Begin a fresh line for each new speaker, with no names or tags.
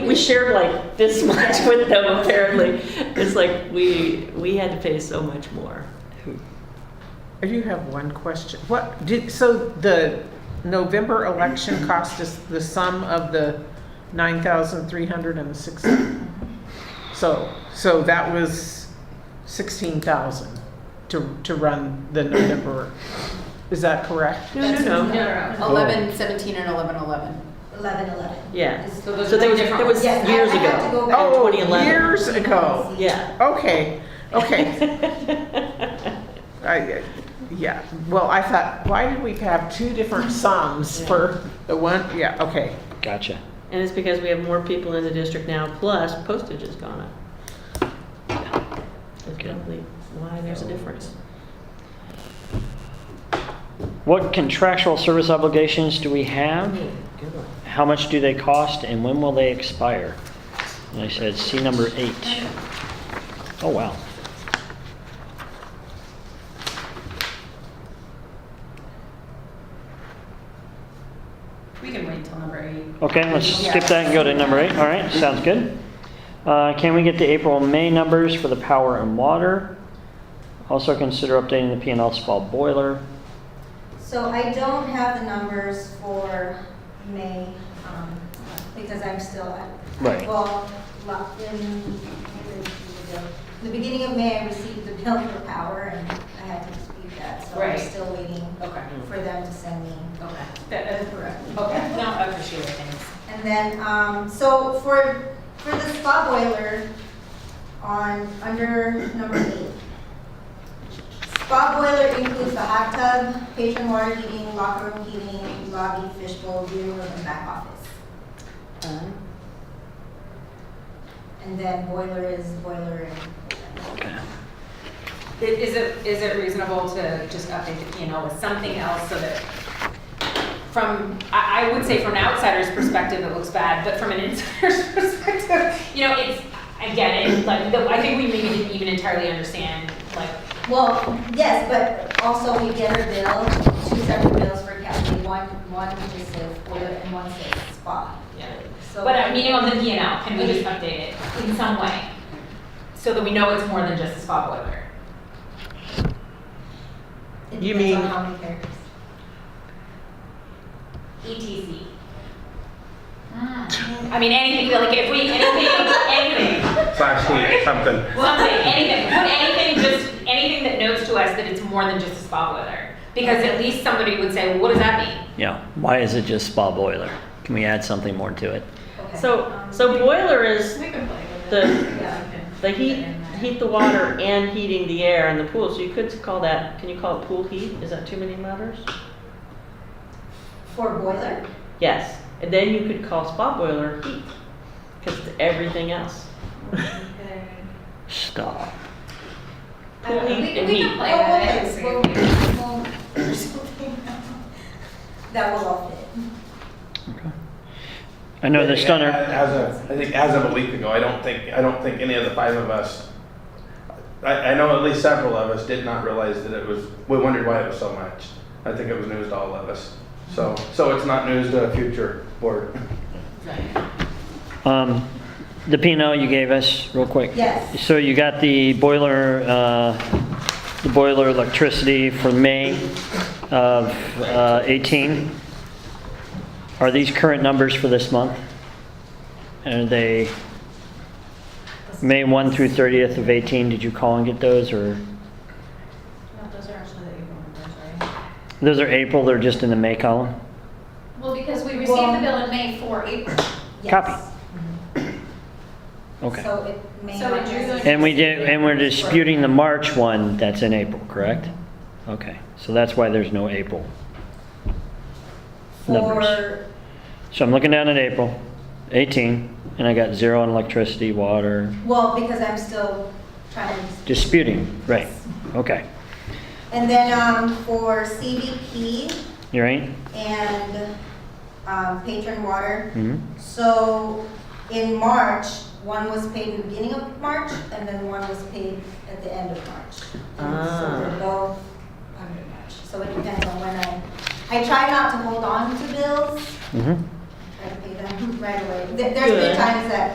we shared like this much with them apparently. It's like we, we had to pay so much more.
I do have one question. What, did, so the November election cost us the sum of the nine thousand three hundred and sixty? So, so that was sixteen thousand to, to run the November. Is that correct?
No, no, no.
no,
Oh.
no.
Eleven seventeen and eleven eleven.
Eleven, eleven.
Yeah.
So those
So
are
there
two
was,
different
there was
ones.
Yes, I-
years
I have to
ago.
go back.
Oh,
2011.
years ago.
Yeah.
Okay, okay. I, yeah, well, I thought, why did we have two different sums for the one, yeah, okay.
Gotcha.
And it's because we have more people in the district now, plus postage has gone up. That's
Okay.
probably why there's a difference.
What contractual service obligations do we have?
Good one.
How much do they cost and when will they expire? And I said, see number eight. Oh, wow.
We can wait till number eight.
Okay, let's skip that and go to number eight. All right, sounds good. Uh, Can we get the April and May numbers for the power and water? Also consider updating the p and L small boiler.
So I don't have the numbers for May, um, because I'm still at.
Right.
Well, locked in, maybe it's the bill. the beginning of May, I received the bill for power, and I had to dispute that, so I'm
Right.
still waiting
Okay.
for them to send me.
Okay. That, that's correct. Okay, no, I appreciate it, thanks.
And then, um, so for, for the spa boiler on, under number eight. Spa boiler includes the hot tub, patron water heating, locker room heating, lobby, fishbowl, viewing room, and back office.
Uh-huh.
And then boiler is boiler and.
Okay.
I- Is it, is it reasonable to just update the P and L with something else so that from, I, I would say from an outsider's perspective, it looks bad, but from an insider's perspective, you know, it's, I get it, like, the- I think we maybe didn't even entirely understand, like,
Well, yes, but also we get her bill, two separate bills for Kathy, one, one just says boiler and one says spa.
yeah.
So-
But I mean, on the P and L, can we just update it in some way? So that we know it's more than just a spot boiler?
It
You
depends
mean-
on how many characters.
ETC. Ah. I mean, anything, like, if we, anything, anything.
Slash heat, something.
Something, anything, put anything, just anything that notes to us that it's more than just a spa boiler. Because at least somebody would say, well, what does that mean?
Yeah, why is it just spa boiler? Can we add something more to it?
Okay.
So, so boiler is
We can play with
the,
Yeah.
the heat, heat the water and heating the air in the pool. So you could call that, can you call it pool heat? Is that too many letters?
For boiler?
Yes. And then you could call spot boiler heat, because it's everything else.
Stop.
I don't know.
Pool heat and
We
heat.
can play
Oh,
with
okay.
it. see.
We'll- we'll- there's something else. That will all fit.
I know the stunner,
As of, I think as of a week ago, I don't think, I don't think any of the five of us, I, I know at least several of us did not realize that it was, we wondered why it was so much. I think it was news to all of us. So, so it's not news to a future board.
um, the p and L you gave us, real quick.
Yes,
So you got the boiler, uh, the boiler electricity for May of uh, 18. Are these current numbers for this month? And are they May 1 through 30th of 18? Did you call and get those or?
No, those are actually the April numbers, right?
Those are April, they're just in the May column?
Well, because we
Well-
received the bill in May for April.
yes.
Copy. Okay.
So it may
So
not.
did you go-
And we did, and we're disputing the March one that's in April, correct? Okay, so that's why there's no April. numbers.
For,
So I'm looking down at April, 18, and I got zero on electricity, water,
well, because I'm still trying to.
disputing, right, okay.
And then, um, for CBP
You right?
and, um, patron water.
hmm
So in March, one was paid in the beginning of March and then one was paid at the end of March. And
Ah.
So they're both under March. So it depends on when I, I try not to hold on to bills.
hmm
I try to pay them right away. There- There's
Good.
been times that